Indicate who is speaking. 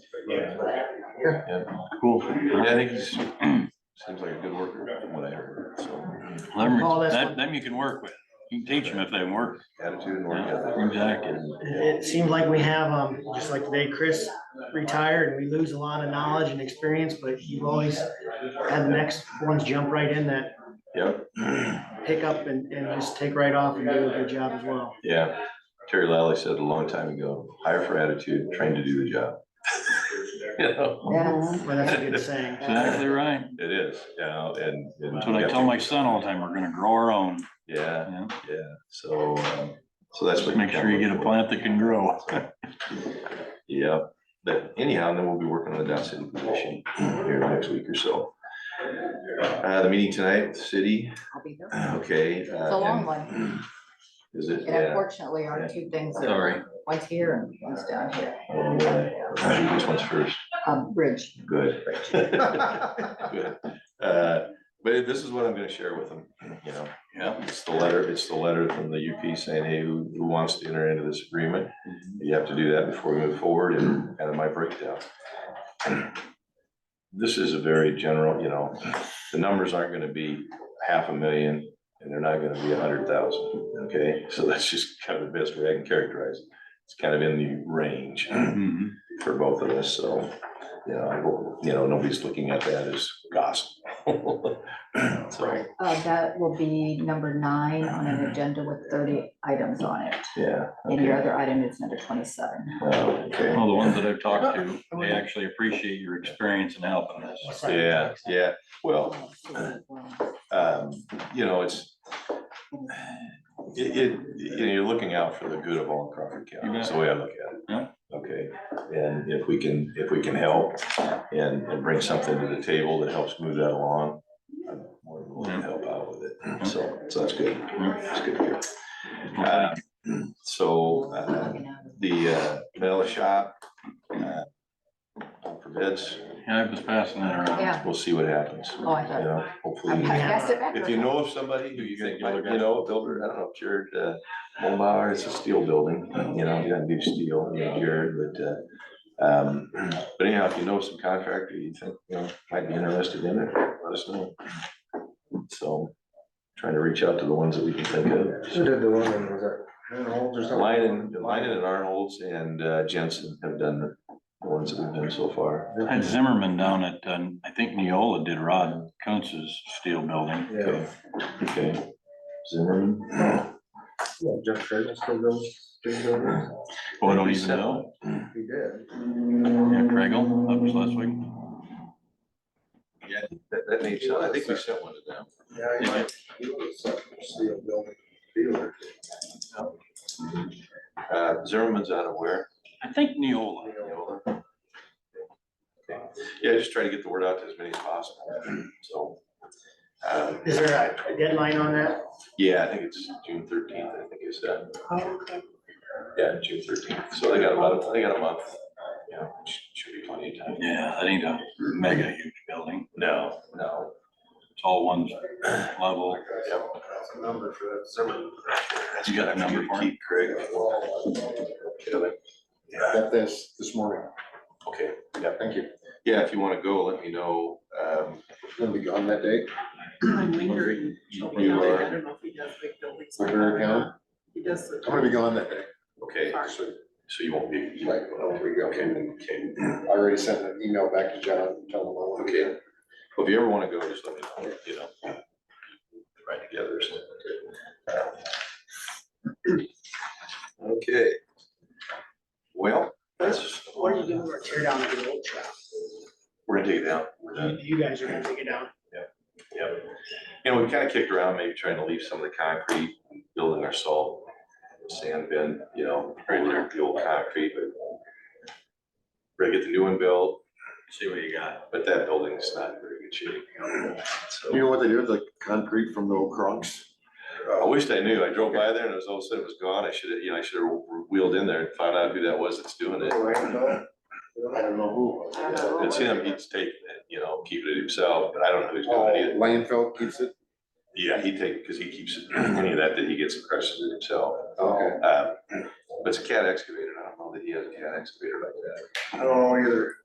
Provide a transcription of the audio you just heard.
Speaker 1: Yeah.
Speaker 2: Cool. Yeah, I think he's, seems like a good worker from what I heard, so.
Speaker 3: Oh,
Speaker 4: Them,
Speaker 3: that's
Speaker 4: that,
Speaker 3: what-
Speaker 4: them you can work with. You can teach them if they work.
Speaker 2: Attitude and work
Speaker 4: Yeah,
Speaker 2: ethic.
Speaker 4: Exactly.
Speaker 3: It seems like we have, um, just like today, Chris retired and we lose a lot of knowledge and experience, but you've always had the next ones jump right in that
Speaker 2: Yep.
Speaker 3: pick up and, and just take right off and do a good job as well.
Speaker 2: Yeah. Terry Lally said a long time ago, hire for attitude, train to do the job. You know,
Speaker 3: Yeah. But that's a good saying.
Speaker 4: Exactly right.
Speaker 2: It is, you know, and. and
Speaker 4: That's what I tell my son all the time. We're gonna grow our own.
Speaker 2: Yeah,
Speaker 4: Yeah.
Speaker 2: yeah, so, um, so that's what.
Speaker 4: Make sure you get a plant that can grow.
Speaker 2: Yeah, but anyhow, then we'll be working on the Dow City position here next week or so. Uh, the meeting tonight, with the city,
Speaker 5: I'll be there.
Speaker 2: okay. It's
Speaker 5: a long one.
Speaker 2: Is it?
Speaker 5: It unfortunately are two things. that are-
Speaker 4: Sorry.
Speaker 5: One's here and one's down here.
Speaker 2: Oh, boy. Which one's first?
Speaker 5: Um, bridge.
Speaker 2: Good. Good. Uh, But this is what I'm gonna share with them, you know,
Speaker 4: Yeah.
Speaker 2: it's the letter, it's the letter from the UP saying, hey, who, who wants to enter into this agreement? You have to do that before we move forward and kind of my breakdown. This is a very general, you know, the numbers aren't gonna be half a million and they're not gonna be a hundred thousand, okay? So that's just kind of the best way I can characterize it. It's kind of in the range
Speaker 4: Mhm.
Speaker 2: for both of us, so, you know, I hope, you know, nobody's looking at that as gospel. So,
Speaker 5: Uh, that will be number nine on an agenda with thirty items on it.
Speaker 2: yeah.
Speaker 5: And your
Speaker 2: okay.
Speaker 5: other item is number twenty-seven.
Speaker 2: Oh, Okay.
Speaker 4: Well, the ones that I've talked to, they actually appreciate your experience in helping us.
Speaker 2: Yeah, yeah, well, Uh, um, you know, it's, it, it, you know, you're looking out for the good of all of Crawford County,
Speaker 4: You
Speaker 2: that's the way I look at it.
Speaker 4: Yeah.
Speaker 2: Okay, and if we can, if we can help and, and bring something to the table that helps move that along, I'm more than willing to help out with it, so, so that's good, that's good to hear. Uh, So, uh, the, uh, metal shop, uh, up for bids,
Speaker 4: Yeah, I was passing that around.
Speaker 5: Yeah.
Speaker 2: we'll see what happens, you
Speaker 5: Oh, I thought.
Speaker 2: know,
Speaker 5: I
Speaker 2: hopefully. we-
Speaker 5: passed it back.
Speaker 2: if you know of somebody who you think, might- you know, a builder, I don't know, Jared, uh, Mulbauer, it's a steel building, you know, you gotta do steel, you know, Jared, but, uh, um, but anyhow, if you know some contractor you think, you know, might be interested in it, let us know. So, trying to reach out to the ones that we can think
Speaker 6: Who
Speaker 2: of.
Speaker 6: did the one, that was it? Manholes or something?
Speaker 2: Line and, Line and Arnold's and uh, Jensen have done the the ones that we've done so far.
Speaker 4: I had Zimmerman down at, um, I think Neola did Rod Kuntz's steel building.
Speaker 6: Yeah.
Speaker 2: Okay, Zimmerman.
Speaker 6: Yeah, Jeff Curtis still goes, still goes.
Speaker 4: Oh, I don't even know.
Speaker 6: He did.
Speaker 4: Yeah, Craigle, that was last week.
Speaker 2: Yeah, that, that makes, sense. I think we sent one to them.
Speaker 6: Yeah, he might. He was a steel building dealer.
Speaker 2: Uh, Zimmerman's out of where?
Speaker 4: I think Neola.
Speaker 2: Neola. Okay. Yeah, just try to get the word out to as many as possible, so. um,
Speaker 3: Is there a deadline on that?
Speaker 2: Yeah, I think it's June thirteenth, I think it's that. Yeah, June thirteenth, so they got about, a- they got a month, yeah, which should be plenty of time.
Speaker 4: Yeah, that ain't a mega huge building.
Speaker 2: No, no.
Speaker 4: It's all one level.
Speaker 2: Yep.
Speaker 6: That's a number for that Zimmerman.
Speaker 4: You got a number for it?
Speaker 2: Keep Craig. Kidding. Yeah,
Speaker 6: Got this, this morning.
Speaker 2: Okay, yeah,
Speaker 6: Thank you.
Speaker 2: yeah, if you wanna go, let me know, um,
Speaker 6: Gonna be gone that day.
Speaker 7: I'm lingering.
Speaker 2: You-
Speaker 7: I
Speaker 2: you are-
Speaker 7: don't know if he does big buildings.
Speaker 6: For her account?
Speaker 7: He does. the-
Speaker 6: I'm gonna be gone that day.
Speaker 2: okay,
Speaker 6: So,
Speaker 2: so you won't be.
Speaker 6: Like, whenever we go.
Speaker 2: Okay, okay.
Speaker 6: I already sent an email back to John, and tell him I want to.
Speaker 2: Okay, well, if you ever wanna go, just let me know, you know. Right together or something. Okay. Well, that's,
Speaker 3: What are you doing? We're tear down the old trap.
Speaker 2: we're gonna take it down. We're done.
Speaker 3: You you guys are gonna take it down.
Speaker 2: Yep. You know, we kinda kicked around, maybe trying to leave some of the concrete, building our salt, sand bin, you know, right there, the old concrete, but. We're gonna get the new one built,
Speaker 4: See what you got.
Speaker 2: but that building's not in very good shape. so.
Speaker 6: You know what they do with the concrete from the old Kronks?
Speaker 2: I wished I knew. I drove by there and it was all of a sudden it was gone. I should have, you know, I should have wheeled in there and found out who that was that's doing it.
Speaker 6: I don't know who. it was.
Speaker 2: It's him, he's taking it, you know, keeping it himself, but I don't know who's doing
Speaker 6: Oh.
Speaker 2: it either.
Speaker 6: Landfill Uh, keeps it?
Speaker 2: Yeah, he take, because he keeps it, any of that that he gets and crushes it himself.
Speaker 6: Okay.
Speaker 2: Um, But it's a cat excavator. I don't know that he has a cat excavator like that.
Speaker 6: I don't know either.